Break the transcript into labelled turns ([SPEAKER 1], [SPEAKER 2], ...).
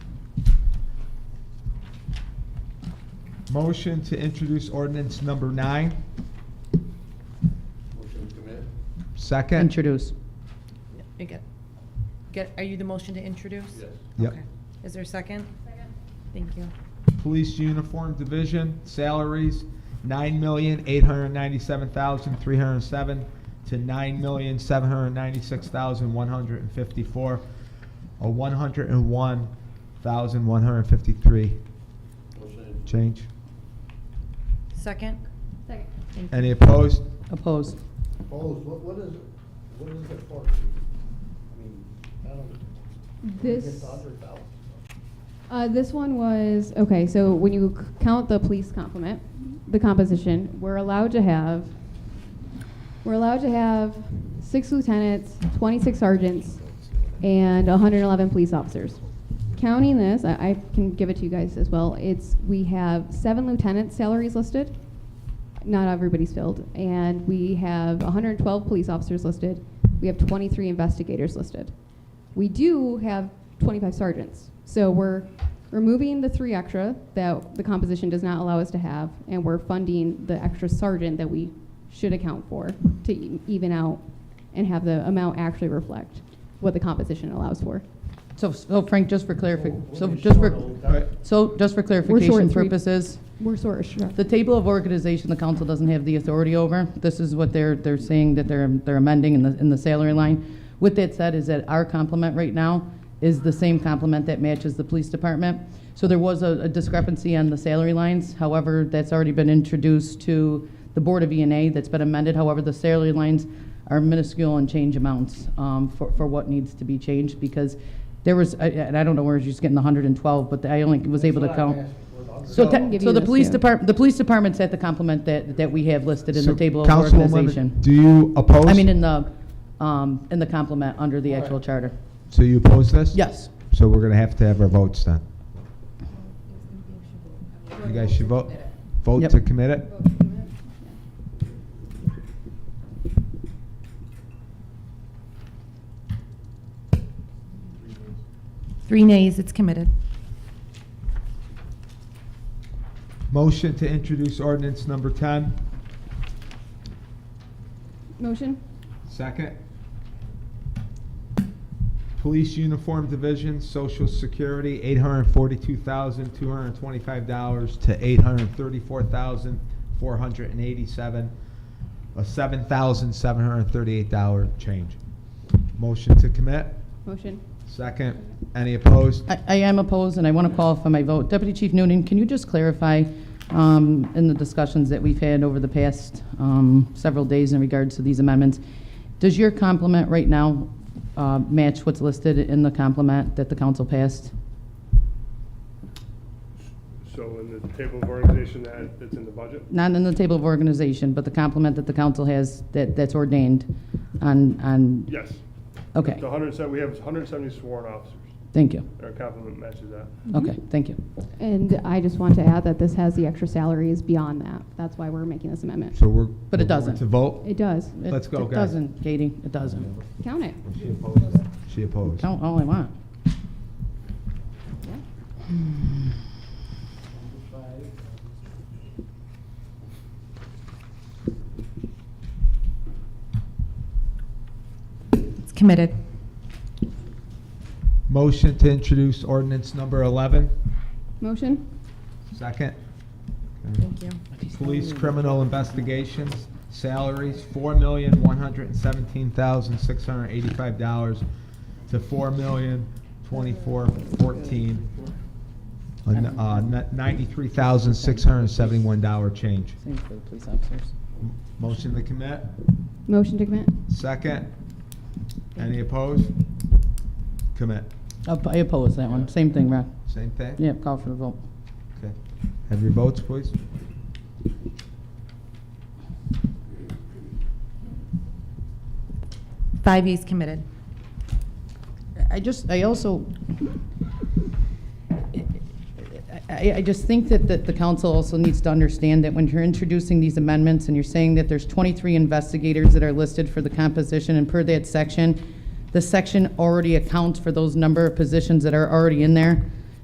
[SPEAKER 1] Motion to introduce ordinance number nine.
[SPEAKER 2] Motion to commit?
[SPEAKER 1] Second.
[SPEAKER 3] Introduce.
[SPEAKER 4] You get, get, are you the motion to introduce?
[SPEAKER 2] Yes.
[SPEAKER 1] Yep.
[SPEAKER 4] Okay. Is there a second? Second. Thank you.
[SPEAKER 1] Police Uniform Division, salaries, nine million, eight hundred ninety-seven thousand, three hundred and seven to nine million, seven hundred ninety-six thousand, one hundred and fifty-four, a one hundred and one thousand, one hundred and fifty-three
[SPEAKER 2] Motion,
[SPEAKER 1] change.
[SPEAKER 4] Second? Thank
[SPEAKER 5] Second.
[SPEAKER 4] you.
[SPEAKER 1] Any opposed?
[SPEAKER 3] Oppose.
[SPEAKER 2] opposed, what, what is, what is it for? I mean, I don't.
[SPEAKER 5] This,
[SPEAKER 2] Hundred thousand.
[SPEAKER 5] uh, this one was, okay, so when you c- count the police complement, the composition, we're allowed to have, we're allowed to have six lieutenants, twenty-six sergeants, and hundred and eleven police officers. Counting this, I, I can give it to you guys as well, it's, we have seven lieutenant salaries listed, not everybody's filled, and we have hundred and twelve police officers listed, we have twenty-three investigators listed. we do have 25 sergeants. So we're removing the three extra that the composition does not allow us to have, and we're funding the extra sergeant that we should account for to e- even out and have the amount actually reflect what the composition allows for.
[SPEAKER 3] So, so Frank, just for clarification,
[SPEAKER 2] We're
[SPEAKER 3] so
[SPEAKER 2] gonna
[SPEAKER 3] just
[SPEAKER 2] short
[SPEAKER 3] for,
[SPEAKER 2] all that.
[SPEAKER 3] so just for
[SPEAKER 5] short
[SPEAKER 3] clarification
[SPEAKER 5] three-
[SPEAKER 3] purposes,
[SPEAKER 5] We're sort of sure.
[SPEAKER 3] the table of organization, the council doesn't have the authority over. This is what they're, they're saying that they're, they're amending in the, in the salary line. With that said, is that our complement right now is the same complement that matches the police department. So there was a a discrepancy on the salary lines. However, that's already been introduced to the Board of E and A. That's been amended. However, the salary lines are minuscule in change amounts um, for, for what needs to be changed because there was, I- and I don't know where she's getting the 112, but I only was able to
[SPEAKER 2] That's what I'm
[SPEAKER 3] count.
[SPEAKER 2] asking for, the
[SPEAKER 3] So,
[SPEAKER 2] $100,000.
[SPEAKER 3] te-
[SPEAKER 5] give
[SPEAKER 3] so
[SPEAKER 5] you
[SPEAKER 3] the
[SPEAKER 5] this,
[SPEAKER 3] police
[SPEAKER 5] yeah.
[SPEAKER 3] department, the police department's at the complement that, that we have listed in the
[SPEAKER 1] So,
[SPEAKER 3] table of
[SPEAKER 1] Councilwoman,
[SPEAKER 3] organization.
[SPEAKER 1] Do you oppose?
[SPEAKER 3] I mean, in the, um, in the complement under the
[SPEAKER 2] All
[SPEAKER 3] actual
[SPEAKER 2] right.
[SPEAKER 3] charter.
[SPEAKER 1] So you oppose this?
[SPEAKER 3] Yes.
[SPEAKER 1] So we're gonna have to have our votes then. You guys should vote, vote
[SPEAKER 3] Yep.
[SPEAKER 1] to commit it?
[SPEAKER 4] Three nays, it's committed.
[SPEAKER 1] Motion to introduce ordinance number ten.
[SPEAKER 5] Motion?
[SPEAKER 1] Second. Police Uniform Division, Social Security, eight hundred and forty-two thousand, two hundred and twenty-five dollars to eight hundred and thirty-four thousand, four hundred and eighty-seven, a seven thousand, seven hundred and thirty-eight dollar change. Motion to commit?
[SPEAKER 5] Motion.
[SPEAKER 1] Second. Any opposed?
[SPEAKER 3] I, I am opposed, and I want to qualify my vote. Deputy Chief Noonan, can you just clarify, um, in the discussions that we've had over the past, um, several days in regards to these amendments, does your complement right now, uh, match what's listed in the complement that the council passed?
[SPEAKER 6] So in the table of organization that, that's in the budget?
[SPEAKER 3] not in the table of organization, but the complement that the council has, that, that's ordained on, on,
[SPEAKER 6] Yes.
[SPEAKER 3] okay,
[SPEAKER 6] The hundred and seven, we have hundred and seventy sworn officers.
[SPEAKER 3] thank you.
[SPEAKER 6] Our complement matches that.
[SPEAKER 3] Okay,
[SPEAKER 5] Mm-hmm.
[SPEAKER 3] thank you.
[SPEAKER 5] And I just want to add that this has the extra salaries beyond that. That's why we're making this amendment.
[SPEAKER 1] So we're.
[SPEAKER 3] But it
[SPEAKER 1] we're going
[SPEAKER 3] doesn't.
[SPEAKER 1] To vote?
[SPEAKER 5] It does.
[SPEAKER 3] It-
[SPEAKER 1] Let's go,
[SPEAKER 3] It
[SPEAKER 1] guys.
[SPEAKER 3] doesn't, Katie, it doesn't.
[SPEAKER 5] Count it.
[SPEAKER 1] She opposed. She opposed.
[SPEAKER 3] Count all I want.
[SPEAKER 5] Yeah.
[SPEAKER 4] It's committed.
[SPEAKER 1] Motion to introduce ordinance number 11.
[SPEAKER 5] Motion?
[SPEAKER 1] Second.
[SPEAKER 4] Thank you.
[SPEAKER 1] Police criminal investigations, salaries, $4,117,685 to $4,024,14, a n- uh, n- $93,671 change.
[SPEAKER 3] Same for the police officers.
[SPEAKER 1] Motion to commit?
[SPEAKER 5] Motion to commit?
[SPEAKER 1] Second. Any opposed? Commit.
[SPEAKER 3] Op- I oppose that one, same thing, Rod.
[SPEAKER 1] Same thing?
[SPEAKER 3] Yeah, call for the vote.
[SPEAKER 1] Okay. Have your votes, please.
[SPEAKER 4] Five yeas committed.
[SPEAKER 3] I just, I also, I, I just think that, that the council also needs to understand that when you're introducing these amendments and you're saying that there's 23 investigators that are listed for the composition and per that section, the section already accounts for those number of positions that are already in there.